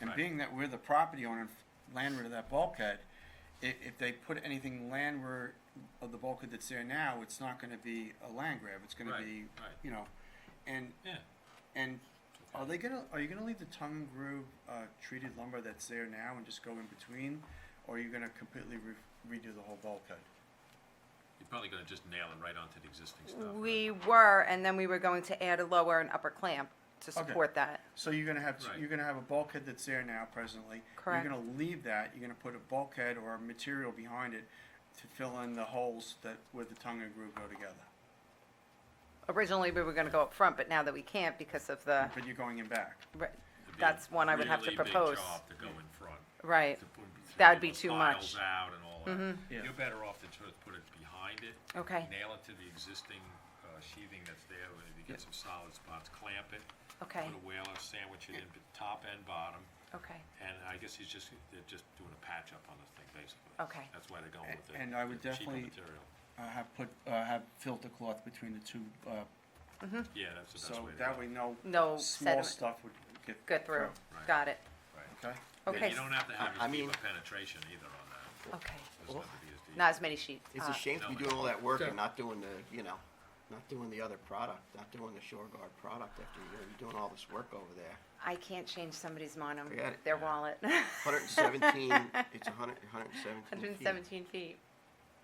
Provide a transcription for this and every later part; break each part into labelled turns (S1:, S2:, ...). S1: And
S2: Right.
S1: being that we're the property owner landward of that bulkhead, if, if they put anything landward of the bulkhead that's there now, it's not gonna be a land grab, it's gonna
S2: Right,
S1: be,
S2: right.
S1: you know, and,
S2: Yeah,
S1: and are they gonna, are you gonna leave the tongue and groove, uh, treated lumber that's there now and just go in between? Or are you gonna completely re- redo the whole bulkhead?
S2: you're probably gonna just nail it right onto the existing stuff.
S3: We were, and then we were going to add a lower and upper clamp to
S1: Okay.
S3: support that.
S1: So you're gonna have,
S2: Right.
S1: you're gonna have a bulkhead that's there now presently.
S3: Correct.
S1: You're gonna leave that, you're gonna put a bulkhead or a material behind it to fill in the holes that, where the tongue and groove go together.
S3: Originally, we were gonna go up front, but now that we can't because of the,
S1: But you're going in back.
S3: right,
S2: It'd be a
S3: that's one I would have to
S2: really big
S3: propose.
S2: job to go in front,
S3: Right,
S2: to put- to
S3: That'd
S2: do
S3: be
S2: the
S3: too
S2: piles
S3: much. Mm-hmm.
S2: out and all that.
S1: Yeah.
S2: You're better off to just put it behind it.
S3: Okay.
S2: Nail it to the existing uh, sheathing that's there, and if you get some solid spots, clamp it.
S3: Okay.
S2: Put a whaler, sandwich it in, b- top and bottom,
S3: okay,
S2: and I guess he's just, they're just doing a patch up on this thing, basically.
S3: Okay.
S2: That's why they're going with it.
S1: And I would definitely-
S2: Cheaper material.
S1: Uh, have put, uh, have filter cloth between the two, uh,
S2: Yeah, that's the best
S1: so
S2: way to go.
S1: that way no.
S3: No
S1: Small
S3: sediment.
S1: stuff would get.
S3: good through,
S2: Right.
S3: got it,
S2: Right.
S1: Okay,
S2: Yeah,
S3: okay,
S2: you don't have to have
S4: I- I
S2: as deep
S4: mean-
S2: a penetration either on that.
S3: okay.
S2: Doesn't have to be as deep.
S3: Not as many sheets.
S4: It's
S3: uh,
S4: a shame to be
S2: no,
S4: doing all that work
S5: Sure.
S4: and not doing the, you know, not doing the other product, not doing the shore guard product after you're, you're doing all this work over there.
S3: I can't change somebody's mono,
S4: Forget it.
S3: their wallet.
S4: Hundred and seventeen, it's a hundred, hundred and seventeen
S3: Hundred and seventeen feet,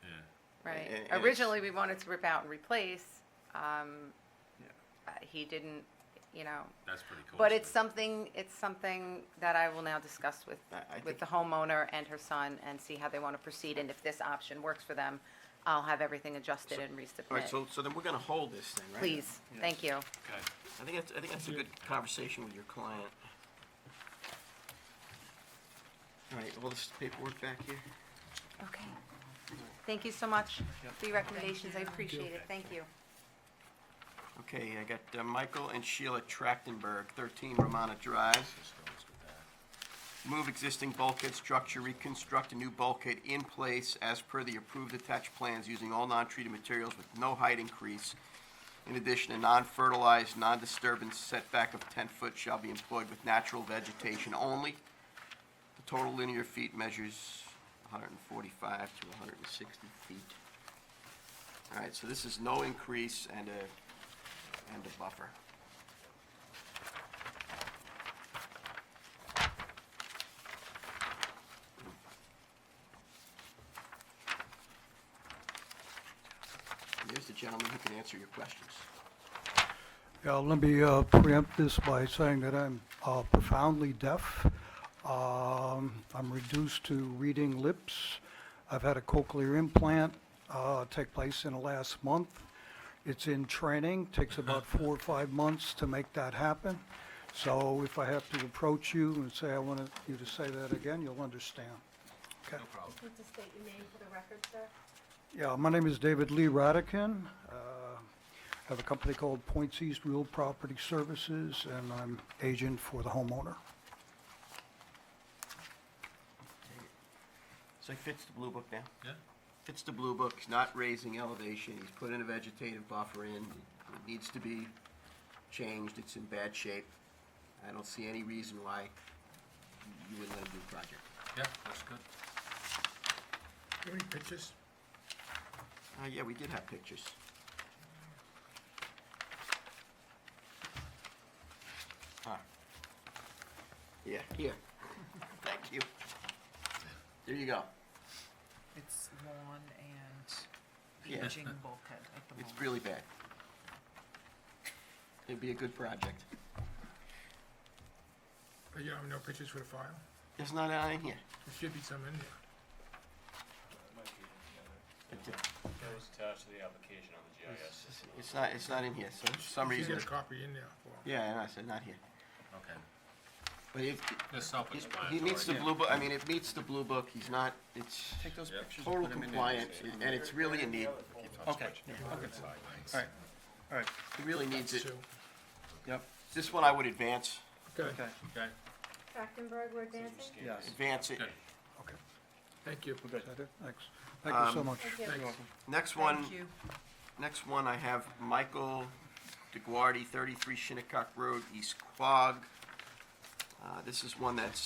S2: Yeah.
S3: right.
S4: And- and it's-
S3: Originally, we wanted to rip out and replace, um,
S1: Yeah.
S3: uh, he didn't, you know,
S2: That's pretty cool.
S3: But it's something, it's something that I will now discuss with,
S4: I- I
S3: with
S4: think-
S3: the homeowner and her son and see how they want to proceed. And if this option works for them, I'll have everything adjusted and
S4: All right,
S3: resubmit.
S4: so, so then we're gonna hold this thing, right?
S3: Please, thank you.
S2: Okay,
S4: I think that's, I think that's a good conversation with your client. All right, all this paperwork back here?
S3: Okay. Thank you so much for your recommendations. I appreciate it. Thank you.
S4: Okay, I got uh, Michael and Sheila Trachtenberg, thirteen Romana Drive.
S2: just go, let's go back.
S4: Move existing bulkhead structure, reconstruct a new bulkhead in place as per the approved attached plans using all non-treated materials with no height increase. In addition, a non-fertilized, non-disturbance setback of ten foot shall be employed with natural vegetation only. The total linear feet measures hundred and forty-five to hundred and sixty feet. All right, so this is no increase and a, and a buffer. There's the gentleman who can answer your questions.
S6: Yeah, let me uh, preempt this by saying that I'm uh, profoundly deaf. Um, I'm reduced to reading lips. I've had a cochlear implant uh, take place in the last month. It's in training, takes about four or five months to make that happen. So if I have to approach you and say, I want you to say that again, you'll understand. Okay.
S7: Need to state your name for the record, sir?
S6: Yeah, my name is David Lee Radican. Uh, Have a company called Points East Real Property Services, and I'm agent for the homeowner.
S4: So he fits the blue book now?
S2: Yeah,
S4: fits the blue book, he's not raising elevation, he's put in a vegetative buffer in, it needs to be changed, it's in bad shape. I don't see any reason why you would let him do the project.
S2: yeah, looks good.
S5: you have any pictures?
S4: Oh, yeah, we did have pictures. Huh. Yeah, here. Thank you. There you go.
S8: It's lawn and
S4: Yeah.
S8: aging bulkhead at the
S4: It's
S8: moment.
S4: really bad. It'd be a good project.
S5: But you don't have no pictures for the file?
S4: There's not any in here.
S5: There should be some in there.
S4: It's a-
S9: Those attached to the application on the GIS
S4: It's- It's not, it's not in here, so for some
S5: You should
S4: reason,
S5: get a copy in there for 'em.
S4: yeah, and I said, not here.
S2: Okay,
S4: But it,
S2: that's
S4: it-
S2: self-explanatory.
S4: he meets the blue book, I mean, it meets the blue book, he's not, it's
S1: take those pictures. and
S4: total
S1: put 'em in there.
S4: compliant, and it's really a need,
S1: Okay,
S2: Sideways.
S1: alright, alright,
S4: he really needs it.
S5: Two.
S1: yep,
S4: This one I would advance,
S5: Okay,
S1: okay,
S2: Okay,
S7: Trachtenberg, we're advancing?
S1: yes,
S4: advance it.
S2: good.
S6: Okay,
S5: thank you.
S1: we're good.
S6: is that it? Thanks. Thank you so
S4: Um,
S6: much.
S7: Thank
S1: You're
S7: you.
S1: welcome.
S4: Next one,
S8: Thank you.
S4: next one, I have Michael DeGuardi, thirty-three Shinnecock Road, East Quogue. Uh, this is one that's